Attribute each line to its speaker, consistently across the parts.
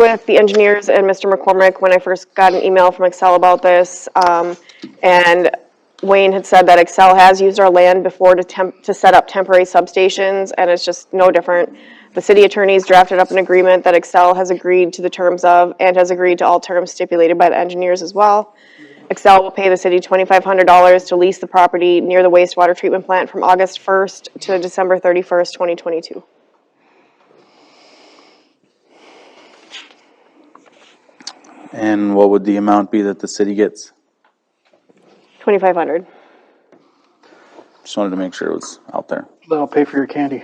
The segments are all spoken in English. Speaker 1: with the engineers and Mr. McCormick when I first got an email from Excel about this. Um, and Wayne had said that Excel has used our land before to temp, to set up temporary substations, and it's just no different. The city attorneys drafted up an agreement that Excel has agreed to the terms of and has agreed to all terms stipulated by the engineers as well. Excel will pay the city twenty-five hundred dollars to lease the property near the wastewater treatment plant from August first to December thirty-first, twenty twenty-two.
Speaker 2: And what would the amount be that the city gets?
Speaker 1: Twenty-five hundred.
Speaker 2: Just wanted to make sure it was out there.
Speaker 3: That'll pay for your candy.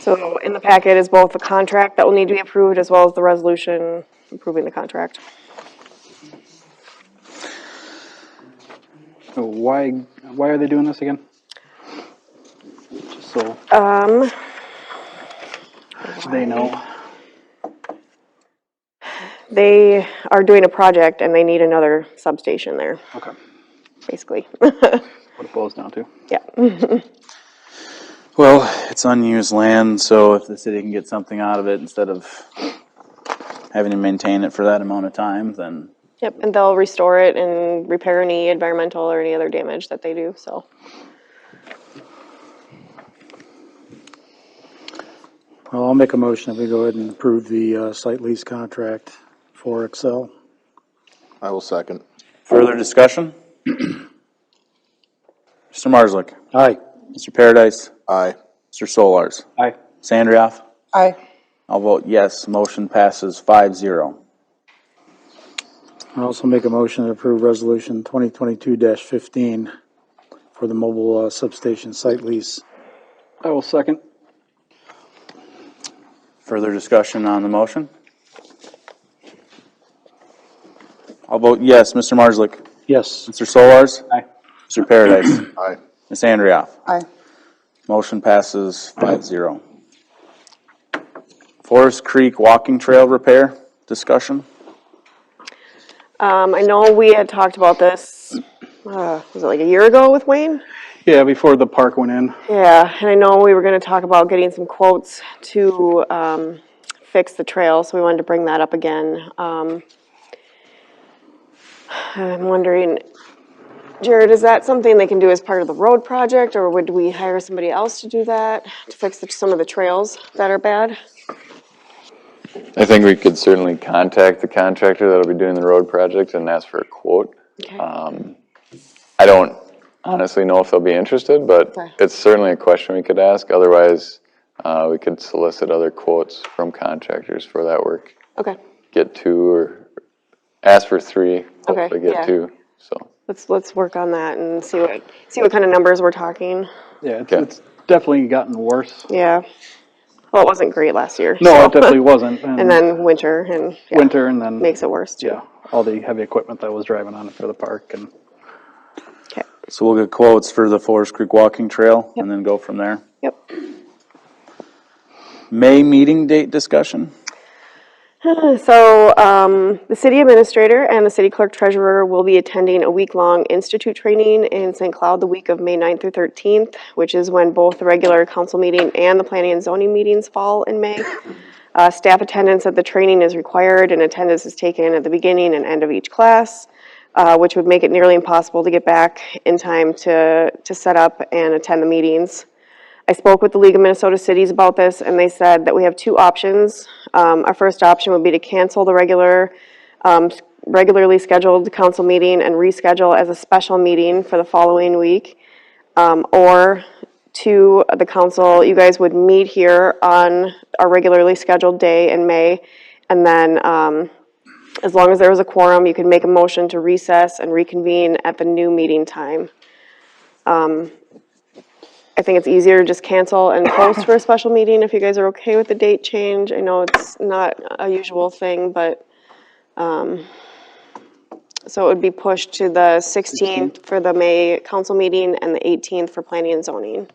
Speaker 1: So in the packet is both the contract that will need to be approved as well as the resolution approving the contract.
Speaker 3: So why, why are they doing this again? Just so
Speaker 1: Um,
Speaker 3: they know.
Speaker 1: they are doing a project and they need another substation there,
Speaker 3: Okay.
Speaker 1: basically.
Speaker 3: What it boils down to.
Speaker 1: Yeah,
Speaker 2: Well, it's unused land, so if the city can get something out of it instead of having to maintain it for that amount of time, then
Speaker 1: yep, and they'll restore it and repair any environmental or any other damage that they do, so.
Speaker 4: Well, I'll make a motion if we go ahead and approve the uh, site lease contract for Excel.
Speaker 5: I will second.
Speaker 2: further discussion? Mr. Marslick,
Speaker 4: Aye.
Speaker 2: Mr. Paradise,
Speaker 5: Aye.
Speaker 2: Mr. Solars,
Speaker 3: Aye.
Speaker 2: Sandrioff,
Speaker 6: Aye.
Speaker 2: I'll vote yes, motion passes five zero.
Speaker 4: I also make a motion to approve Resolution 2022-15 for the mobile uh, substation site lease.
Speaker 3: I will second.
Speaker 2: Further discussion on the motion? I'll vote yes, Mr. Marslick,
Speaker 4: Yes.
Speaker 2: Mr. Solars,
Speaker 3: Aye.
Speaker 2: Mr. Paradise,
Speaker 5: Aye.
Speaker 2: Ms. Andrioff.
Speaker 6: Aye.
Speaker 2: Motion passes five zero. Forest Creek Walking Trail Repair, discussion?
Speaker 1: Um, I know we had talked about this, uh, was it like a year ago with Wayne?
Speaker 3: Yeah, before the park went in.
Speaker 1: Yeah, and I know we were gonna talk about getting some quotes to, um, fix the trail, so we wanted to bring that up again. Um, I'm wondering, Jared, is that something they can do as part of the road project, or would we hire somebody else to do that? To fix the- some of the trails that are bad?
Speaker 7: I think we could certainly contact the contractor that'll be doing the road project and ask for a quote.
Speaker 1: Okay.
Speaker 3: Uh.
Speaker 7: I don't honestly know if they'll be interested, but
Speaker 1: Okay.
Speaker 7: it's certainly a question we could ask. Otherwise, uh, we could solicit other quotes from contractors for that work.
Speaker 1: Okay,
Speaker 7: Get two or ask for three,
Speaker 1: Okay,
Speaker 7: hopefully
Speaker 1: yeah.
Speaker 7: get two, so.
Speaker 1: let's, let's work on that and see what, see what kind of numbers we're talking,
Speaker 3: Yeah, it's,
Speaker 7: Okay.
Speaker 3: it's definitely gotten worse.
Speaker 1: yeah. Well, it wasn't great last year.
Speaker 3: No, it definitely wasn't.
Speaker 1: And then winter and, yeah,
Speaker 3: winter and then
Speaker 1: makes it worse too.
Speaker 3: yeah, all the heavy equipment that was driving on it for the park and
Speaker 1: Okay,
Speaker 2: So we'll get quotes for the Forest Creek Walking Trail and then go from there.
Speaker 1: yep.
Speaker 2: May meeting date discussion?
Speaker 1: So, um, the city administrator and the city clerk treasurer will be attending a week-long institute training in St. Cloud the week of May 9th through thirteenth, which is when both the regular council meeting and the planning and zoning meetings fall in May. Uh, staff attendance at the training is required and attendance is taken at the beginning and end of each class, uh, which would make it nearly impossible to get back in time to, to set up and attend the meetings. I spoke with the League of Minnesota Cities about this, and they said that we have two options. Um, our first option would be to cancel the regular, um, s- regularly scheduled council meeting and reschedule as a special meeting for the following week. Um, or to the council, you guys would meet here on our regularly scheduled day in May, and then, um, as long as there was a quorum, you could make a motion to recess and reconvene at the new meeting time. I think it's easier to just cancel and post for a special meeting if you guys are okay with the date change. I know it's not a usual thing, but, um, so it would be pushed to the 16th for the May council meeting and the 18th for planning and zoning.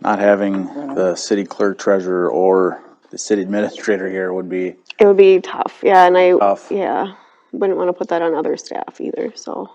Speaker 2: Not having the city clerk treasurer or the city administrator here would be,
Speaker 1: It would be tough, yeah, and I,
Speaker 2: Tough.
Speaker 1: yeah. wouldn't want to put that on other staff either, so.